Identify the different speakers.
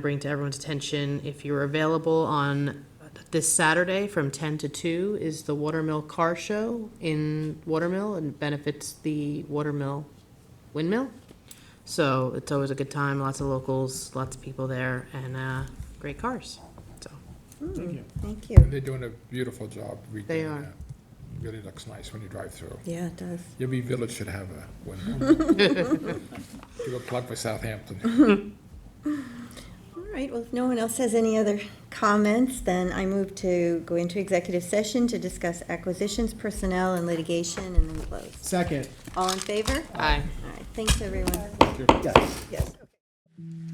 Speaker 1: bring to everyone's attention, if you're available on this Saturday from 10 to 2 is the Watermill Car Show in Watermill and benefits the Watermill Windmill. So it's always a good time, lots of locals, lots of people there, and uh, great cars, so.
Speaker 2: Thank you.
Speaker 3: They're doing a beautiful job. redoing
Speaker 1: They are.
Speaker 3: that. Really looks nice when you drive through.
Speaker 2: Yeah, it does.
Speaker 3: Every village should have a windmill. Give a plug for Southampton.
Speaker 2: All right, well, if no one else has any other comments, then I move to go into executive session to discuss acquisitions, personnel, and litigation, and then close.
Speaker 4: Second.
Speaker 2: All in favor?
Speaker 1: Aye.
Speaker 2: All right, thanks, everyone.
Speaker 4: Yes.
Speaker 2: Yes.